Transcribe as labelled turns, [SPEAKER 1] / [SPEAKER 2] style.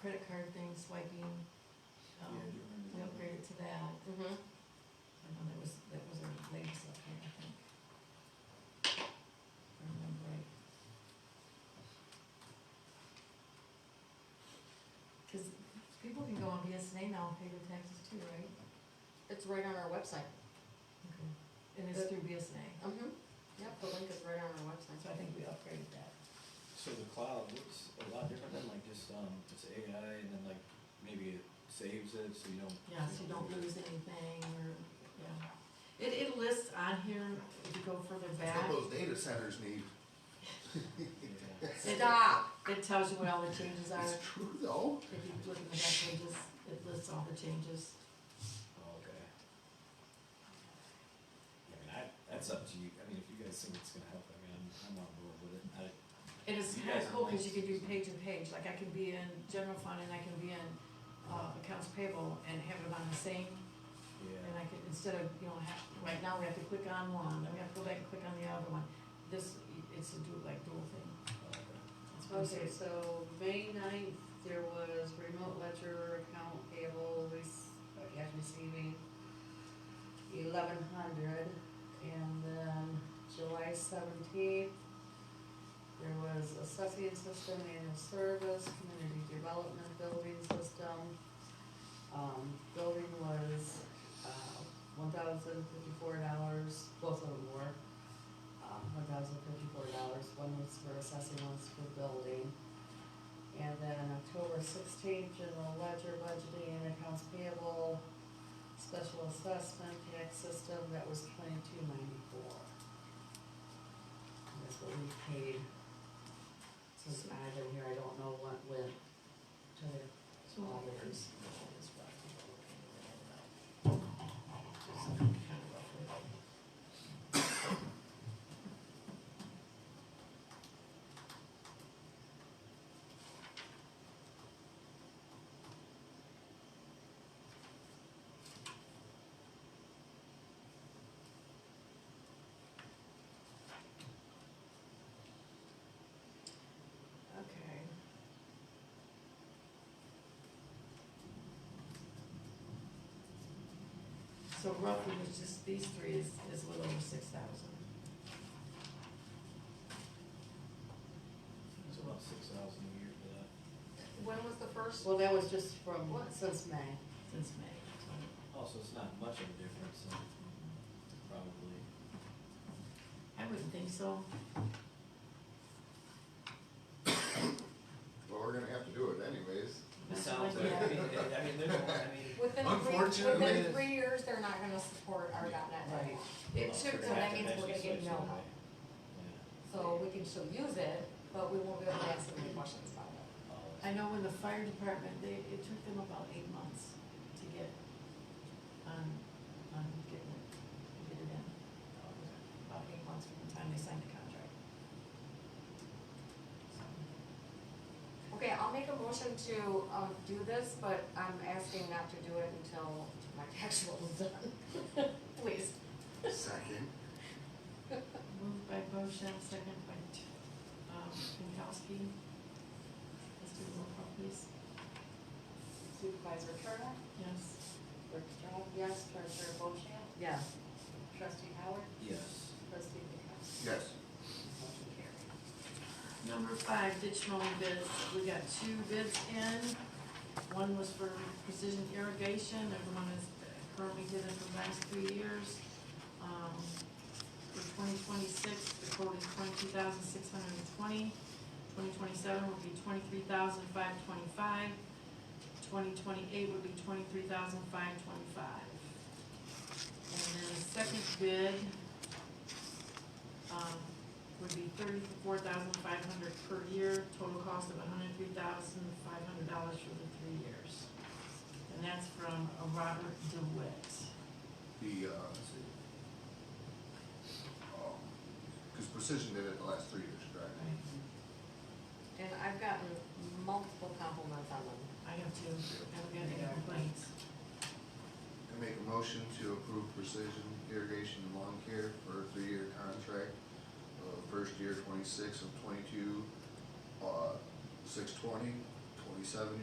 [SPEAKER 1] credit card thing, swiping, um, we upgraded to that.
[SPEAKER 2] Mm-hmm.
[SPEAKER 1] I know that was, that was our latest update, I think. If I remember right. Cause people can go on BSNA now and pay their taxes too, right?
[SPEAKER 2] It's right on our website.
[SPEAKER 1] Okay. And it's through BSNA,
[SPEAKER 2] Mm-hmm. Yep, the link is right on our
[SPEAKER 1] so
[SPEAKER 2] website.
[SPEAKER 1] I think we upgraded that.
[SPEAKER 3] So the cloud looks a lot different than like just, um, it's AI and then like maybe it saves it so you don't.
[SPEAKER 1] Yeah, so you don't lose anything or, yeah. It, it lists on here, if you go further
[SPEAKER 4] That's
[SPEAKER 1] back,
[SPEAKER 4] What those data centers need,
[SPEAKER 3] Yeah.
[SPEAKER 2] Stop!
[SPEAKER 1] it tells you what all the changes are.
[SPEAKER 4] it's true though,
[SPEAKER 1] If you look at the back pages, it lists all the changes.
[SPEAKER 3] Oh, Okay. I mean, I, that's up to you, I mean, if you guys think it's gonna help, I mean, I'm, I'm on board with it, I,
[SPEAKER 1] And it's
[SPEAKER 3] You
[SPEAKER 1] kinda
[SPEAKER 3] guys are
[SPEAKER 1] cool, cause you
[SPEAKER 3] nice.
[SPEAKER 1] can do page to page, like I can be in general fund and I can be in, uh, accounts payable and have it on the same. And
[SPEAKER 3] yeah,
[SPEAKER 1] I can, instead of, you know, have, right now we have to click on one, then we have to go back and click on the other one. This, it's a dual, like dual thing.
[SPEAKER 3] oh, okay.
[SPEAKER 1] That's what I'm
[SPEAKER 5] Okay,
[SPEAKER 1] saying.
[SPEAKER 5] so May ninth, there was remote ledger account payable, rec- uh, cash receiving, eleven hundred, and then July seventeenth, there was assessing system, annual service, community development building system. Um, building was, uh, one thousand fifty-four dollars, both of them were um, one thousand fifty-four dollars, one was for assessing, one's for building. And then October sixteenth, general ledger budgeting and accounts payable, special assessment tax system, that was twenty-two ninety-four. That's what we paid. Since I've been here, I don't know what went to the
[SPEAKER 1] So all the
[SPEAKER 5] auditors.
[SPEAKER 1] Okay. So roughly, it's just these three is, is a little over six thousand.
[SPEAKER 3] It's about six thousand a year uh, for that.
[SPEAKER 2] When was the first?
[SPEAKER 5] Well, that was just from,
[SPEAKER 2] What?
[SPEAKER 5] since May.
[SPEAKER 1] Since May, so.
[SPEAKER 3] Also, it's not much of a difference, so probably.
[SPEAKER 1] I wouldn't think so.
[SPEAKER 4] well, we're gonna have to do it anyways.
[SPEAKER 3] It
[SPEAKER 1] That's
[SPEAKER 3] sounds
[SPEAKER 1] like,
[SPEAKER 3] like, I mean,
[SPEAKER 1] yeah.
[SPEAKER 3] I mean, there's, one- I mean,
[SPEAKER 2] Within three,
[SPEAKER 4] Unfortunately,
[SPEAKER 2] within
[SPEAKER 4] it's-
[SPEAKER 2] three years, they're not gonna support our dot net
[SPEAKER 5] Right.
[SPEAKER 2] anymore.
[SPEAKER 3] well,
[SPEAKER 2] It took,
[SPEAKER 3] we're
[SPEAKER 2] so
[SPEAKER 3] gonna
[SPEAKER 2] that
[SPEAKER 3] have to
[SPEAKER 2] means we're gonna
[SPEAKER 3] eventually
[SPEAKER 2] get no
[SPEAKER 3] switch
[SPEAKER 2] help.
[SPEAKER 3] anyway.
[SPEAKER 2] So we can still use it, but we won't be able to answer any questions about it.
[SPEAKER 3] Yeah. Oh,
[SPEAKER 1] I know when the fire department, they, it took them about eight months to get, um, um, getting it, get it in. About eight months from the time they signed the contract. So,
[SPEAKER 2] Okay, I'll make a motion to, um, do this, but I'm asking not to do it until my actual is done. Please.
[SPEAKER 4] Second,
[SPEAKER 1] Moved by Bochamp, second by, T- um, Pinkowski. Let's do a roll call, please.
[SPEAKER 5] Supervisor Turner,
[SPEAKER 1] Yes.
[SPEAKER 5] Bergstrom, yes, Treasurer Bochamp,
[SPEAKER 1] Yeah.
[SPEAKER 5] Trustee Howard,
[SPEAKER 3] Yes.
[SPEAKER 5] Trustee Pankowski.
[SPEAKER 4] yes.
[SPEAKER 5] Motion carried.
[SPEAKER 1] Number five, ditch mowing bids. We got two bids in. One was for precision irrigation, and one is currently did it for the last three years. Um, For twenty twenty-six, the quote is twenty-two thousand six hundred and twenty. Twenty twenty-seven would be twenty-three thousand five twenty-five. Twenty twenty-eight would be twenty-three thousand five twenty-five. And then the second bid, um, would be thirty-four thousand five hundred per year, total cost of hundred and three thousand five hundred dollars for the three years. And that's from uh, Robert DeWitt.
[SPEAKER 4] The, uh, let's see. Um, cause Precision did it the last three years, correct?
[SPEAKER 2] And I've gotten multiple compliments on them.
[SPEAKER 1] I have two, I haven't got any complaints.
[SPEAKER 4] I make a motion to approve Precision Irrigation and Lawn Care for a three-year contract. Uh, first year twenty-six of twenty-two, uh, six twenty, twenty-seven